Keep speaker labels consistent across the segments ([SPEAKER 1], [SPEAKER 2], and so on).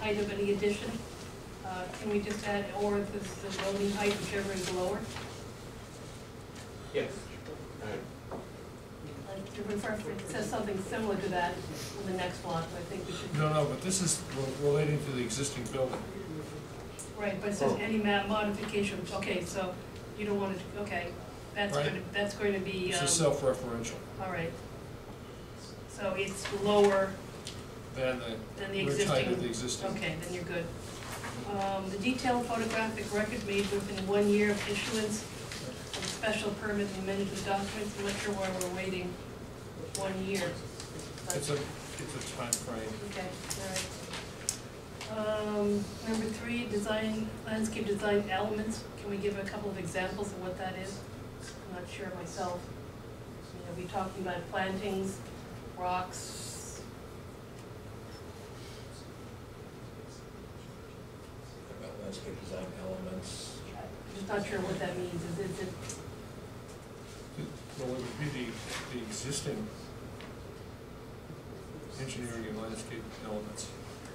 [SPEAKER 1] height of any addition. Uh, Can we just add, or if it's the building height, whichever is lower?
[SPEAKER 2] Yes.
[SPEAKER 1] Like, to refer, it says something similar to that in the next one, I think we should.
[SPEAKER 3] No, no, but this is relating to the existing building.
[SPEAKER 1] Right, but it says any ma- modifications, okay, so you don't want to, okay, that's
[SPEAKER 3] Right.
[SPEAKER 1] going to, that's going to be,
[SPEAKER 3] This is
[SPEAKER 1] um,
[SPEAKER 3] self-referential
[SPEAKER 1] all right. So it's lower
[SPEAKER 3] than the
[SPEAKER 1] than the
[SPEAKER 3] rear height of the
[SPEAKER 1] existing,
[SPEAKER 3] existing.
[SPEAKER 1] okay, then you're good. Um, The detailed photographic record made within one year of issuance of special permit and management documents, I'm not sure why we're waiting one year. but-
[SPEAKER 3] It's a, it's a timeframe.
[SPEAKER 1] Okay, all right. Um, number three, design, landscape design elements, can we give a couple of examples of what that is? I'm not sure myself. You know, we talking about plantings, rocks,
[SPEAKER 4] About landscape design elements.
[SPEAKER 1] I'm just not sure what that means, is it, is it-
[SPEAKER 3] Well, it would be the, the existing engineering and landscape elements.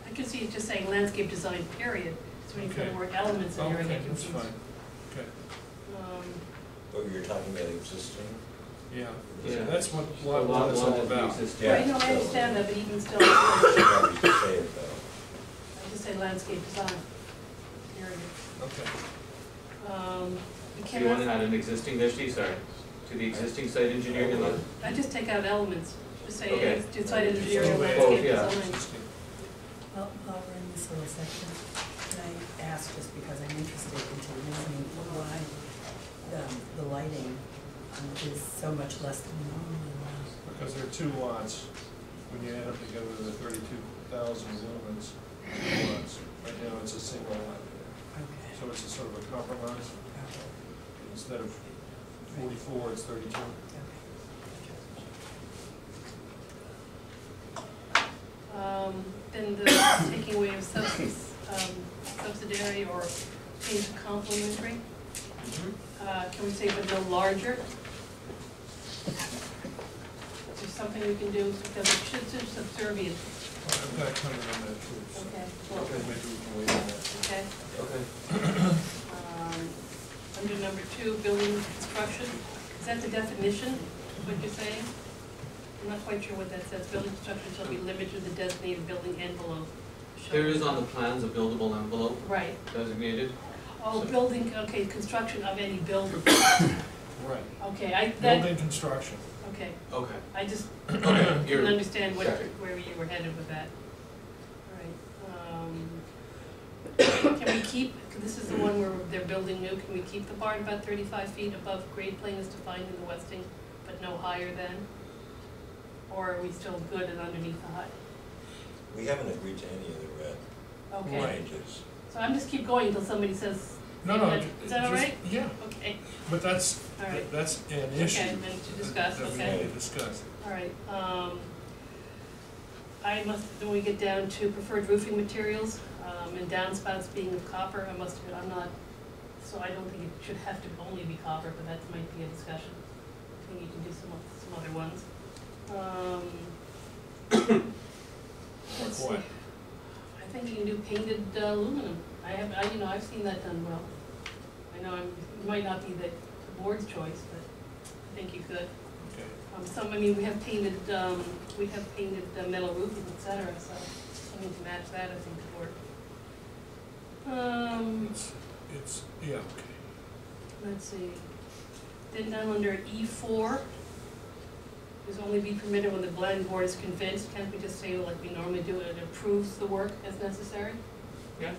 [SPEAKER 1] I could see it just saying landscape design, period, so when you put the
[SPEAKER 3] Okay.
[SPEAKER 1] word elements in there, I
[SPEAKER 3] Okay,
[SPEAKER 1] get
[SPEAKER 3] that's
[SPEAKER 1] confused.
[SPEAKER 3] fine. Okay,
[SPEAKER 1] Um,
[SPEAKER 4] Oh, you're talking about existing?
[SPEAKER 3] yeah.
[SPEAKER 2] Yeah.
[SPEAKER 3] So that's what
[SPEAKER 2] The
[SPEAKER 3] lot one is
[SPEAKER 2] lot
[SPEAKER 3] all about.
[SPEAKER 2] the existing-
[SPEAKER 1] Right,
[SPEAKER 4] Yeah,
[SPEAKER 1] no, I
[SPEAKER 4] so-
[SPEAKER 1] understand that, but even still,
[SPEAKER 4] You
[SPEAKER 1] I
[SPEAKER 4] probably should say it though.
[SPEAKER 1] just say landscape design, period.
[SPEAKER 3] Okay.
[SPEAKER 1] Um, we
[SPEAKER 2] So you want to
[SPEAKER 1] cannot,
[SPEAKER 2] add an existing, there she, sorry, to the existing site engineering and land-
[SPEAKER 1] I just take out elements, just say,
[SPEAKER 2] Okay.
[SPEAKER 1] uh, decide engineering and
[SPEAKER 3] Both,
[SPEAKER 1] landscape
[SPEAKER 2] yeah.
[SPEAKER 1] design.
[SPEAKER 5] Well, while we're in this little section, can I ask, just because I'm interested into the reasoning for why the, the lighting um, is so much less than normal?
[SPEAKER 3] Because there are two lots, when you add them together, the thirty-two thousand lumens, two lots. Right now, it's a single lot,
[SPEAKER 5] Okay.
[SPEAKER 3] so it's a sort of a compromise,
[SPEAKER 5] Okay.
[SPEAKER 3] instead of forty-four, it's thirty-two.
[SPEAKER 1] Um, then the taking away of subs, um, subsidiary or change to complementary,
[SPEAKER 3] Mm-hmm.
[SPEAKER 1] uh, can we say but no larger? Is there something we can do, because it should, it's subservient,
[SPEAKER 3] I've got a comment on that too, so
[SPEAKER 1] okay,
[SPEAKER 3] maybe we can wait on that.
[SPEAKER 1] okay?
[SPEAKER 2] Okay.
[SPEAKER 1] Um, Under number two, building construction, is that the definition of what you're saying? I'm not quite sure what that says, building construction shall be limited to the designated building envelope. shall-
[SPEAKER 2] There is on the plans a buildable envelope
[SPEAKER 1] Right,
[SPEAKER 2] designated.
[SPEAKER 1] oh,
[SPEAKER 2] So-
[SPEAKER 1] building, okay, construction of any building,
[SPEAKER 3] Right,
[SPEAKER 1] okay, I, that,
[SPEAKER 3] building construction,
[SPEAKER 1] okay,
[SPEAKER 2] Okay.
[SPEAKER 1] I just
[SPEAKER 2] Okay,
[SPEAKER 1] didn't
[SPEAKER 2] you're,
[SPEAKER 1] understand what,
[SPEAKER 2] sorry.
[SPEAKER 1] where you were headed with that. All right, um, can we keep, this is the one where they're building new, can we keep the part about thirty-five feet above grade plane as defined in the westing, but no higher than? Or are we still good and underneath the height?
[SPEAKER 4] We haven't agreed to any of the red
[SPEAKER 1] Okay,
[SPEAKER 3] Right.
[SPEAKER 4] changes.
[SPEAKER 1] so I'm just keep going until somebody says,
[SPEAKER 3] no, no.
[SPEAKER 1] Is that- is that all
[SPEAKER 3] just-
[SPEAKER 1] right?
[SPEAKER 3] Yeah,
[SPEAKER 1] okay,
[SPEAKER 3] but that's,
[SPEAKER 1] All right.
[SPEAKER 3] that's an
[SPEAKER 1] Okay,
[SPEAKER 3] issue.
[SPEAKER 1] then to discuss,
[SPEAKER 3] that- That
[SPEAKER 4] okay.
[SPEAKER 3] we need to discuss.
[SPEAKER 1] all right, um, I must, when we get down to preferred roofing materials, um, and downspouts being of copper, I must, admit, I'm not, so I don't think it should have to only be copper, but that might be a discussion. I think you can do some, oth- some other ones. Um,
[SPEAKER 3] Like
[SPEAKER 1] let's see.
[SPEAKER 3] what?
[SPEAKER 1] I think you can do painted uh, aluminum. I have, I, you know, I've seen that done well. I know I'm, it might not be the the board's choice, but I think you could.
[SPEAKER 3] Okay,
[SPEAKER 1] Um, some, I mean, we have painted, um, we have painted the metal roofing, et cetera, so something to match that, I think, could work. Um,
[SPEAKER 3] it's, it's, yeah, okay.
[SPEAKER 1] let's see. Then down under E four, is only be permitted when the planning board is convinced, can't we just say like we normally do, it approves the work as necessary?
[SPEAKER 2] Yeah.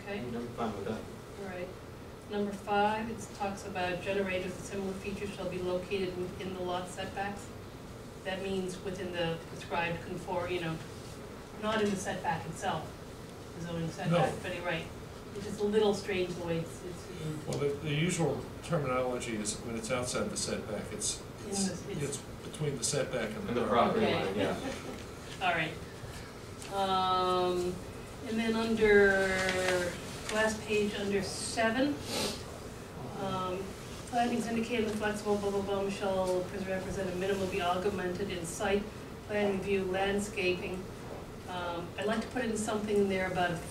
[SPEAKER 1] Okay,
[SPEAKER 2] I'm fine with that.
[SPEAKER 1] all right. Number five, it talks about generators and similar features shall be located within the lot setbacks. That means within the prescribed conform, you know, not in the setback itself, the zoning setback, but you're right. It's just a little strange the way it's, it's
[SPEAKER 3] Well, the, the usual terminology is when it's outside the setback, it's, it's,
[SPEAKER 1] In the- it's-
[SPEAKER 3] it's between the setback and
[SPEAKER 2] And the
[SPEAKER 3] the
[SPEAKER 2] property.
[SPEAKER 3] property.
[SPEAKER 1] Okay.
[SPEAKER 2] line, yeah.
[SPEAKER 1] All right. Um, and then under, last page, under seven, um, plantings indicated in flexible blah blah blah shall represent a minimum be augmented in site, plan review, landscaping. Um, I'd like to put in something in there about